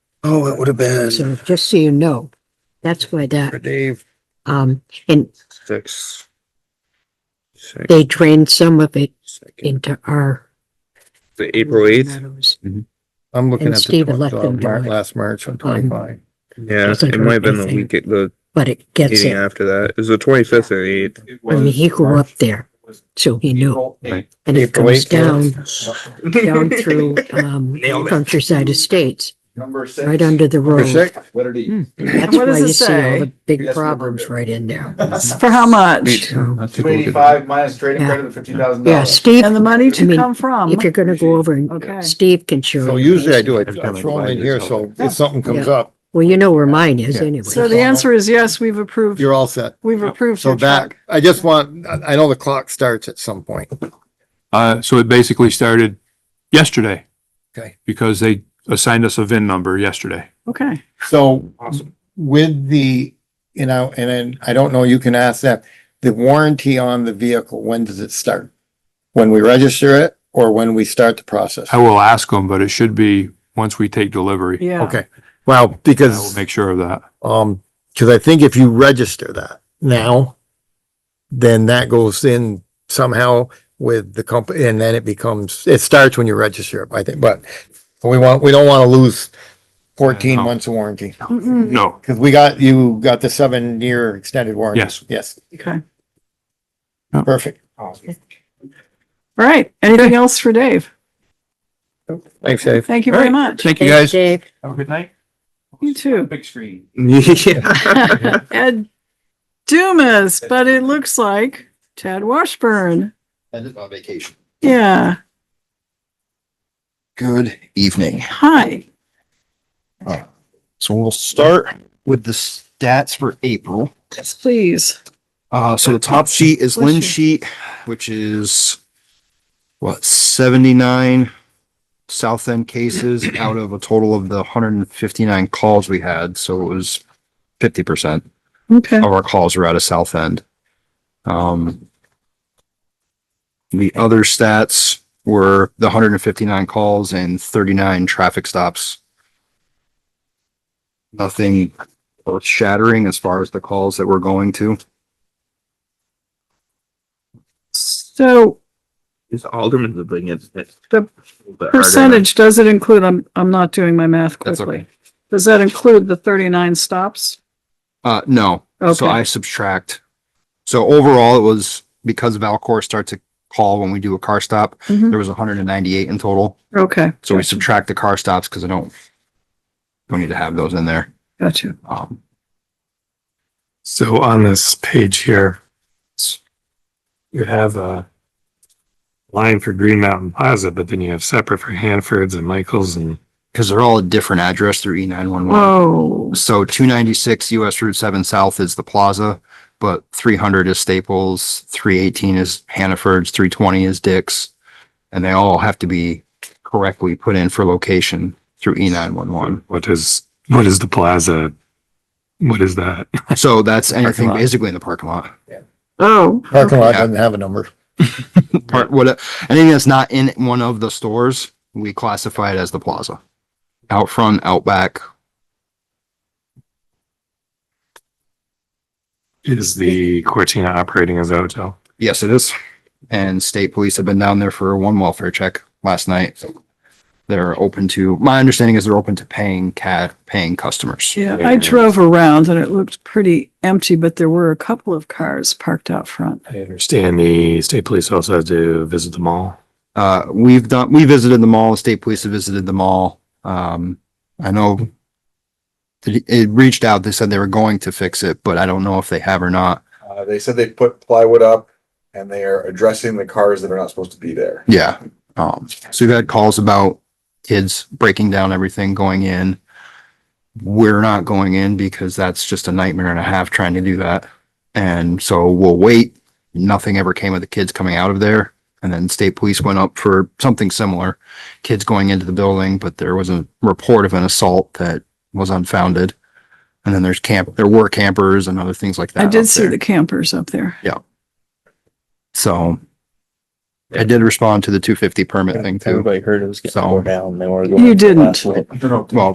Oh, it would have been So just so you know, that's why for that, Dave, um, and six. Six, they drained some of it second, into our. The April eighth. meadows. I'm looking and at the Steve twen- let them Um, uh, do Mar- it. last March on twenty-five. Yeah, Doesn't it might hurt have been the anything. week, at the But it gets meeting it. after that. It was the twenty-fifth or the eighth. I mean, he grew up there, so he knew. And it April comes 8th. down, down through, um, countryside estates, Number six. right under Hmm. the For road. six, Letter D. That's why What does you it see all say? the big Yes, problems right in there. For how much? So, Two eighty-five minus trading Yeah. credit of fifteen thousand yeah, dollars. Steve, And the money I to mean, come from? if you're gonna go over Okay. and Steve can show. so you usually I things. do, I I throw them in here, so if something comes Yeah. up, Well, you know where mine is Yeah. anyway. So the answer is yes, we've approved, you're all set. we've approved So your that, truck. I just want, I I know the clock starts at some point. Uh, so it basically started yesterday. Okay. Because they assigned us a VIN number yesterday. Okay. So with the, you know, and then I don't know, you can ask that, the warranty on the vehicle, when does it start? When we register it or when we start the process? Oh, I will ask them, but it should be once we take delivery. Yeah. Okay, well, I will because, make sure of that. um, because I think if you register that now, then that goes in somehow with the company and then it becomes, it starts when you register it, I think, but we want, we don't want to lose fourteen No. months of warranty. Mm-mm. No, Because we got, you got the seven year extended warranty. Yes. Yes, Okay. perfect. All right. Anything else for Dave? Thanks, Dave. Thank you very much. thank you guys. Dave, Have a good night. You too. Big screen. Yeah. Ed Dumas, but it looks like Chad Washburn. And it's on vacation. Yeah. Good evening. Hi. So we'll start with the stats for April. Yes, please. Uh, so the top sheet is Bless you. Lynn sheet, which is what, seventy-nine South End cases out of a total of the hundred and fifty-nine calls we had, so it was fifty percent Okay. of our calls were out of South End. Um, the other stats were the hundred and fifty-nine calls and thirty-nine traffic stops. Nothing earth shattering as far as the calls that we're going to. So Is Alderman the thing, it's, it's. The percentage, does it include, I'm, I'm not doing my math That's quickly. Does that include the thirty-nine stops? Uh, no. So Okay. I subtract. So overall, it was because Valcor starts a call when we do a car stop, Mhm. there was hundred and ninety-eight in total. Okay. So we subtract the car stops because I don't, don't need to have those in there. Got you. Um, So on this page here, s- you have a line for Green Mountain Plaza, but then you have separate for Hanford's and Michael's and cause they're all a different address through E nine one one. Oh. Whoa. So two ninety-six US Route seven South is the plaza, but three hundred is Staples, three eighteen is Hannaford's, three twenty is Dick's. And they all have to be correctly put in for location through E nine one one. what is, what is the plaza? What is that? So that's anything lot. basically in the parking lot. Oh. Parking lot Yeah. doesn't have a number. Part, what, anything that's not in one of the stores, we classify it as the plaza. Out front, out back. Is the Cortina operating as a hotel? Yes, it is. And state police have been down there for one welfare check last night. They're open to, my understanding is they're open to paying cat, paying customers. Yeah, I drove around and it looked pretty empty, but there were a couple of cars parked out front. I understand the state police also have to visit the mall. Uh, we've done, we visited the mall, the state police have visited the mall. Um, I know it, it reached out, they said they were going to fix it, but I don't know if they have or not. Uh, they said they put plywood up and they are addressing the cars that are not supposed to be there. Yeah. Um, so we've had calls about kids breaking down everything going in. We're not going in because that's just a nightmare and a half trying to do that. And so we'll wait. Nothing ever came of the kids coming out of there. And then state police went up for something similar. Kids going into the building, but there was a report of an assault that was unfounded. And then there's camp, there were campers and other things like that. I up did see there. the campers up there. So I did respond to the two fifty permit thing too. heard it was getting So- down. They were You didn't. Well,